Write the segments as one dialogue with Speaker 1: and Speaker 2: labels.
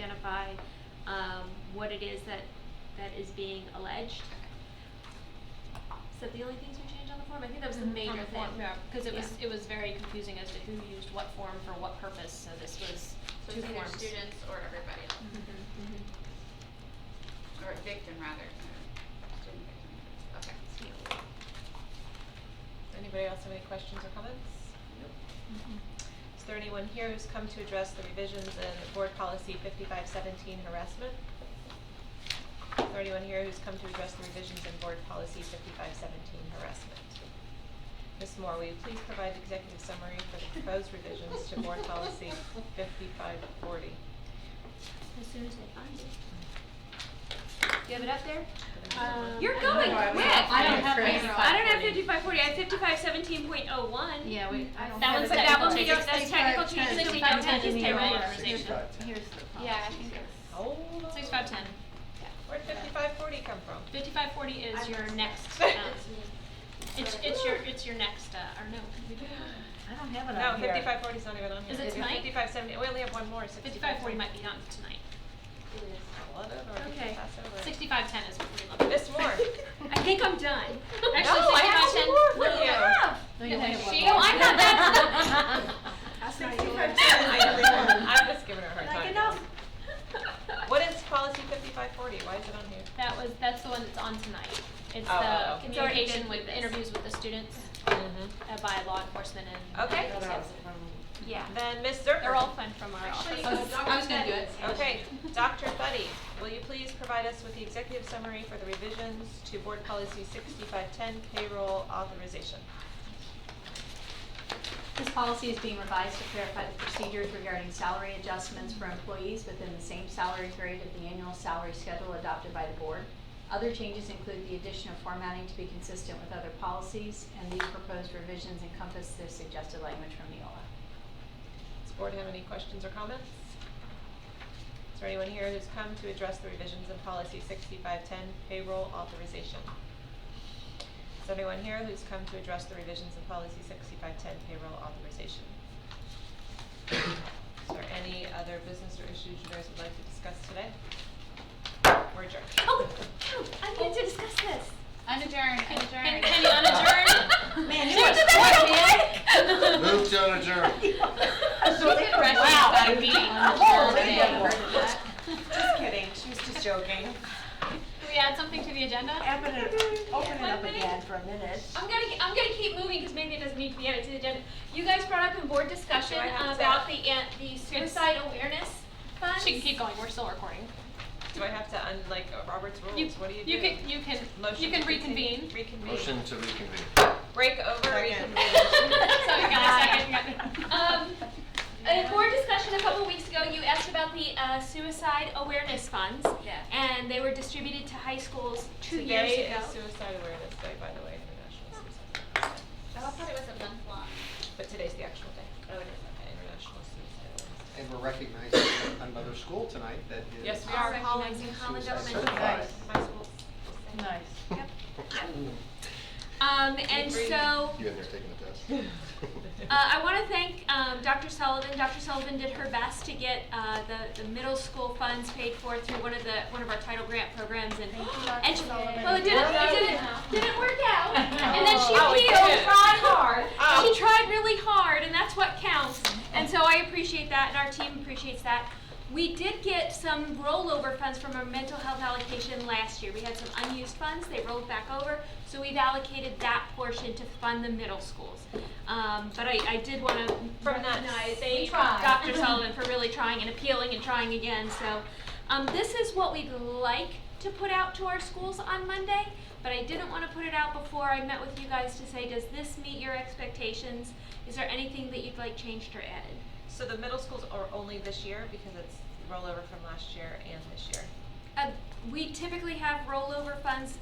Speaker 1: identify um, what it is that, that is being alleged. Is that the only things we changed on the form? I think that was the
Speaker 2: Mhm.
Speaker 1: major
Speaker 2: On the
Speaker 1: thing.
Speaker 2: form, yeah, because it was,
Speaker 1: Yeah.
Speaker 2: it was very confusing as to who used what form for what purpose, so this was
Speaker 3: So
Speaker 2: two
Speaker 3: it's either
Speaker 2: forms. Mm-hmm,
Speaker 3: students or everybody else, or victim rather, uh, student victim, okay.
Speaker 2: mm-hmm.
Speaker 1: Yeah.
Speaker 4: Anybody else have any questions or comments? Mm-hmm. Is there anyone here who's come to address the revisions in Board Policy fifty-five seventeen harassment? Is there anyone here who's come to address the revisions in Board Policy fifty-five seventeen harassment? Ms. Moore, will you please provide the executive summary for the proposed revisions to Board Policy fifty-five forty?
Speaker 1: As soon as I find it. Do you have it up there?
Speaker 4: Um,
Speaker 1: You're
Speaker 2: I don't
Speaker 1: going
Speaker 2: know, I
Speaker 1: quick.
Speaker 2: was like, I don't have
Speaker 1: I
Speaker 2: fifty-five
Speaker 1: don't have
Speaker 2: forty.
Speaker 1: fifty-five forty, I have fifty-five seventeen point oh one.
Speaker 2: Yeah, we, I don't
Speaker 1: That
Speaker 2: have
Speaker 1: one's
Speaker 2: it.
Speaker 1: like that one,
Speaker 2: Technical
Speaker 1: that's
Speaker 2: changes.
Speaker 1: technical changes, so we don't have these payroll
Speaker 2: Sixty-five
Speaker 1: authorization.
Speaker 5: Here's
Speaker 2: Yeah, I think it's.
Speaker 4: Hold on.
Speaker 2: Six five ten.
Speaker 4: Where'd fifty-five forty come from?
Speaker 2: Fifty-five forty is
Speaker 3: I
Speaker 2: your
Speaker 3: missed it.
Speaker 2: next, um, it's, it's your, it's your next, uh, or no, we do
Speaker 5: I don't have it
Speaker 4: No,
Speaker 5: on here.
Speaker 4: fifty-five forty's not even on here.
Speaker 2: Is it tonight?
Speaker 4: Fifty-five seventy, we only have one more, sixty-five.
Speaker 2: Fifty-five forty might be on tonight.
Speaker 4: Okay.
Speaker 2: Sixty-five ten is what we love.
Speaker 4: Miss Moore.
Speaker 2: I think I'm done. Actually,
Speaker 4: No, I have two
Speaker 2: sixty-five ten.
Speaker 4: more for
Speaker 5: No,
Speaker 4: you.
Speaker 5: you only have one
Speaker 2: She-
Speaker 5: more.
Speaker 2: oh, I'm not that-
Speaker 4: I'm just giving her a hard time.
Speaker 1: Like enough.
Speaker 4: What is policy fifty-five forty? Why is it on here?
Speaker 2: That was, that's the one that's on tonight. It's
Speaker 4: Oh, oh,
Speaker 2: the
Speaker 4: oh.
Speaker 1: It's already
Speaker 2: communication
Speaker 1: been
Speaker 2: with,
Speaker 1: this.
Speaker 2: interviews with the students
Speaker 4: Mm-hmm.
Speaker 2: uh, by law enforcement and.
Speaker 4: Okay.
Speaker 2: those guys.
Speaker 1: Yeah.
Speaker 4: Then Miss Zerker.
Speaker 2: They're all fun from our
Speaker 4: Actually,
Speaker 2: office.
Speaker 4: I
Speaker 6: Oh,
Speaker 4: was- I
Speaker 3: was gonna do it.
Speaker 4: Okay, Dr. Buddy, will you please provide us with the executive summary for the revisions to board policy sixty-five ten payroll authorization?
Speaker 6: This policy is being revised to clarify the procedures regarding salary adjustments for employees within the same salary grade of the annual salary schedule adopted by the board. Other changes include the addition of formatting to be consistent with other policies, and these proposed revisions encompass the suggested language from Neola.
Speaker 4: Does the board have any questions or comments? Is there anyone here who's come to address the revisions in policy sixty-five ten payroll authorization? Is there anyone here who's come to address the revisions in policy sixty-five ten payroll authorization? Is there any other business or issues you guys would like to discuss today? We're adjourned.
Speaker 1: Oh, I need to discuss this.
Speaker 3: Unadjourned,
Speaker 2: Can, can you unadjourn?
Speaker 5: Man,
Speaker 1: you did that
Speaker 2: so quick.
Speaker 7: Move to adjourn.
Speaker 5: So they were- wow.
Speaker 2: Oh,
Speaker 4: Just kidding, she was just joking.
Speaker 2: Can we add something to the agenda?
Speaker 5: I'm gonna open it up
Speaker 1: One minute.
Speaker 5: again for a minute.
Speaker 1: I'm gonna, I'm gonna keep moving because maybe it doesn't need to be added to the agenda. You guys brought up in board discussion
Speaker 4: Do I have to-
Speaker 1: about the, an- the suicide awareness funds.
Speaker 2: She can keep going, we're still recording.
Speaker 4: Do I have to, un like, uh, Robert's
Speaker 2: You,
Speaker 4: rules, what do you do?
Speaker 2: you can, you can,
Speaker 4: Motion
Speaker 2: you can
Speaker 4: to continue-
Speaker 2: reconvene.
Speaker 4: Reconvene.
Speaker 7: Motion to reconvene.
Speaker 4: Break over, reconvene.
Speaker 2: So you got a second, you got-
Speaker 1: Um, in board discussion a couple weeks ago, you asked about the uh, suicide awareness funds.
Speaker 3: Yeah.
Speaker 1: And they were distributed to high schools two years
Speaker 4: Today
Speaker 1: ago.
Speaker 4: is Suicide Awareness Day, by the way, International Suicide Awareness Day.
Speaker 3: I thought it was a month long.
Speaker 4: But today's the actual day. Oh, it is. Okay, International Suicide Awareness Day.
Speaker 8: And we're recognizing another school tonight that is.
Speaker 4: Yes, we
Speaker 1: Are
Speaker 4: are.
Speaker 1: recognizing Holland
Speaker 8: suicide
Speaker 1: Elementary.
Speaker 8: certified.
Speaker 4: My school's.
Speaker 5: Nice.
Speaker 1: Um, and
Speaker 4: Agreed.
Speaker 1: so,
Speaker 7: You haven't taken the test.
Speaker 1: Uh, I want to thank um, Dr. Sullivan. Dr. Sullivan did her best to get uh, the, the middle school funds paid for through one of the one of our title grant programs, and and she, well, it didn't it didn't, didn't work out. And then she
Speaker 4: Oh, it
Speaker 1: appealed,
Speaker 4: didn't.
Speaker 1: tried hard.
Speaker 4: Oh.
Speaker 1: She tried really hard, and that's what counts. And so I appreciate that, and our team appreciates that. We did get some rollover funds from our mental health allocation last year. We had some unused funds, they rolled back over, so we've allocated that portion to fund the middle schools. Um, but I, I did wanna
Speaker 4: From that
Speaker 1: recognize
Speaker 4: same-
Speaker 1: Dr. Sullivan for really trying and appealing and trying again, so. Um, this is what we'd like to put out to our schools on Monday, but I didn't wanna put it out before I met with you guys to say, does this meet your expectations? Is there anything that you'd like changed or added?
Speaker 4: So the middle schools are only this year because it's rollover from last year and this year.
Speaker 1: Uh, we typically have rollover funds.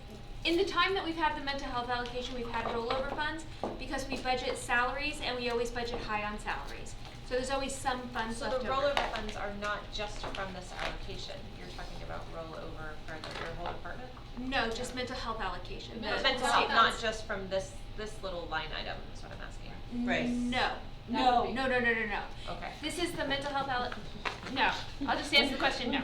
Speaker 1: In the time that we've had the mental health allocation, we've had rollover funds because we budget salaries and we always budget high on salaries. So there's always some funds
Speaker 4: So
Speaker 1: left
Speaker 4: the
Speaker 1: over.
Speaker 4: rollover funds are not just from this allocation. You're talking about rollover for the- your whole department?
Speaker 1: No, just mental health allocation.
Speaker 2: No,
Speaker 4: Mental
Speaker 2: it's
Speaker 4: health,
Speaker 2: not.
Speaker 4: not just from this, this little line item, is what I'm asking.
Speaker 1: No, No, no, no, no, no, no.
Speaker 4: Okay.
Speaker 1: This is the mental health, al- no, I'll just answer the question, no.